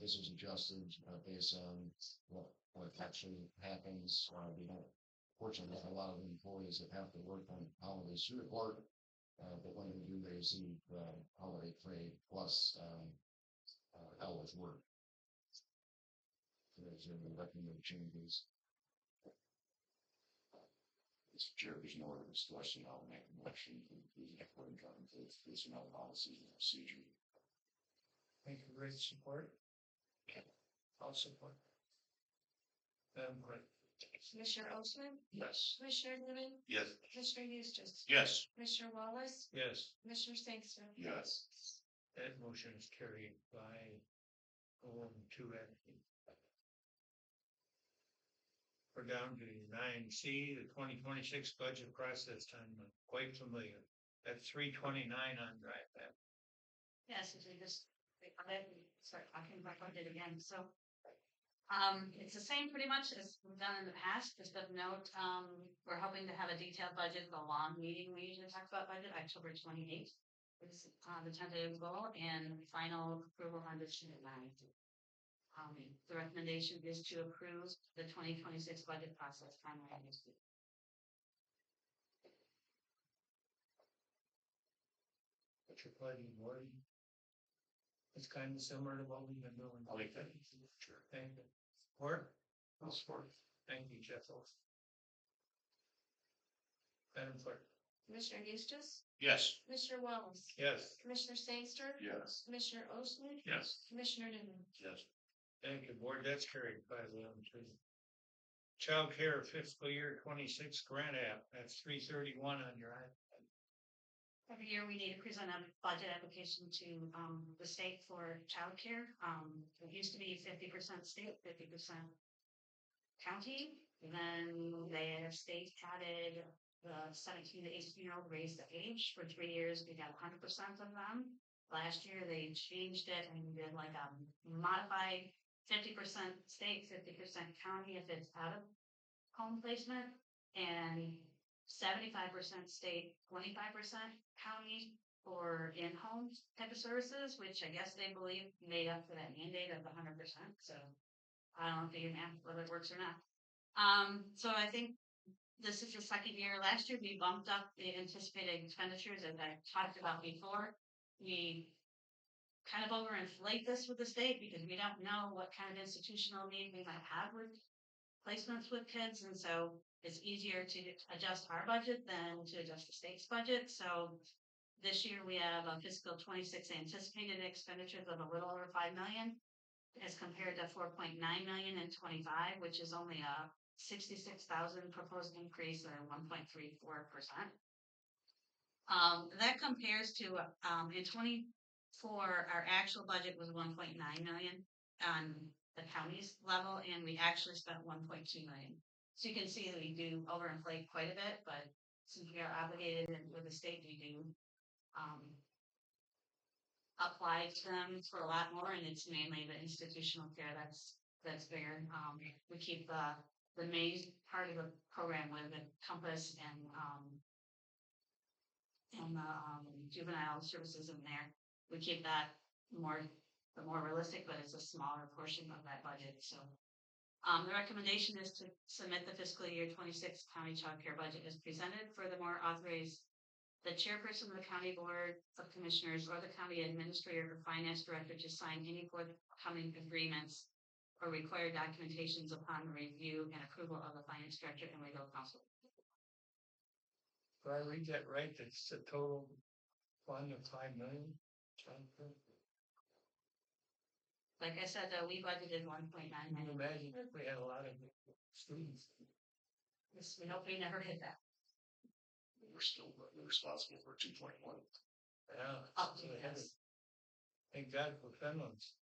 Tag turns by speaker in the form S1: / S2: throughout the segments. S1: this is adjusted uh, based on what, what actually happens, uh, we don't. Fortunately, have a lot of employees that have to work on holidays through work, uh, but when they do, they receive, uh, holiday pay plus, um, uh, hours work. There's any recommended changes. Mr. Chair, there's no other discussion, I'll make a motion to the equity conflict personnel policies and procedure.
S2: Thank you, great support. I'll support. Um, great.
S3: Commissioner Osmann,
S1: Yes.
S3: Commissioner Newman,
S1: Yes.
S3: Commissioner Eustace.
S1: Yes.
S3: Commissioner Wallace,
S2: Yes,
S3: Commissioner Sangster.
S1: Yes.
S2: that motion is carried by going to it. We're down to nine C, the twenty twenty-six budget process, I'm quite familiar. At three twenty-nine on drive back.
S4: Yes, if we just, I let me start talking about what I did again, so. Um, it's the same pretty much as we've done in the past, just of note, um, we're hoping to have a detailed budget, the long meeting we usually talk about budget, October twenty eighth. Is uh the tentative goal and final approval on the June ninth. Um, the recommendation is to approve the twenty twenty six budget process timeline.
S2: But you're planning board. It's kind of similar to what we've been doing.
S1: I like that. Sure.
S2: Thank you. Support?
S1: I'll support.
S2: Thank you, Jeff. Madam Clerk?
S3: Commissioner Eustace,
S1: Yes.
S3: Commissioner Wallace,
S2: Yes.
S3: Commissioner Sangster,
S1: Yes.
S3: Commissioner Osmann,
S1: Yes.
S3: Commissioner Newman.
S1: Yes.
S2: Thank you, Board. That's carried five eleven two. Child care fiscal year twenty-six grant app, that's three thirty-one on your iPad.
S4: Every year we need to present a budget application to um the state for childcare. Um, it used to be fifty percent state, fifty percent county. Then they have state added the seventeen to eighteen year old raised the age. For three years, we got hundred percent of them. Last year, they changed it and did like a modified fifty percent state, fifty percent county if it's out of home placement. And seventy-five percent state, twenty-five percent county or in-home type of services, which I guess they believe made up for that mandate of hundred percent, so. I don't know if you can ask whether it works or not. Um, so I think this is the second year. Last year, we bumped up the anticipated expenditures as I talked about before. We kind of overinflate this with the state because we don't know what kind of institutional need we might have with placements with kids, and so it's easier to adjust our budget than to adjust the state's budget, so. This year, we have a fiscal twenty-six anticipated expenditures of a little over five million. As compared to four point nine million in twenty-five, which is only a sixty-six thousand proposed increase or one point three four percent. Um, that compares to, um, in twenty-four, our actual budget was one point nine million on the county's level, and we actually spent one point two million. So you can see that we do overinflate quite a bit, but since we are obligated and with the state, we do, um, apply to them for a lot more, and it's mainly the institutional care that's, that's bigger. Um, we keep the, the main part of the program with the compass and, um, and the, um, juvenile services in there. We keep that more, the more realistic, but it's a smaller portion of that budget, so. Um, the recommendation is to submit the fiscal year twenty-six county child care budget as presented. Furthermore, authorize the chairperson of the county board of commissioners or the county administrator or finance director to sign any forthcoming agreements or required documentations upon review and approval of the finance director and legal counsel.
S2: Did I read that right? That's the total fund of five million? Child care?
S4: Like I said, though, we budgeted one point nine
S2: Can you
S4: million.
S2: imagine if we had a lot of students?
S4: This- We hope we never hit that.
S1: We're still responsible for two point one.
S2: Yeah.
S4: Up to
S2: so they had to
S4: us.
S2: Thank God for Finland's.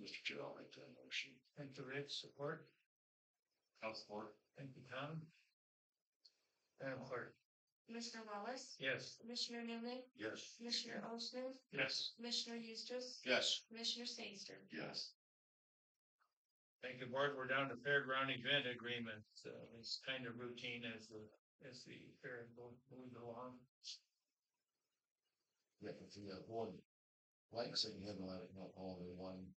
S1: Mr. Chair, I'll make that motion.
S2: Thank you, Rich. Support.
S1: I'll support.
S2: Thank you, Tom. Madam Clerk?
S3: Commissioner Wallace,
S2: Yes.
S3: Commissioner Newman,
S1: Yes.
S3: Commissioner Osmann,
S2: Yes.
S3: Commissioner Eustace,
S1: Yes.
S3: Commissioner Sangster.
S1: Yes.
S2: Thank you, Board. We're down to fairground event agreement. So it's kind of routine as the, as the fair mo- moves along.
S1: Yeah, if you have one, like, so you have a lot of, not all in one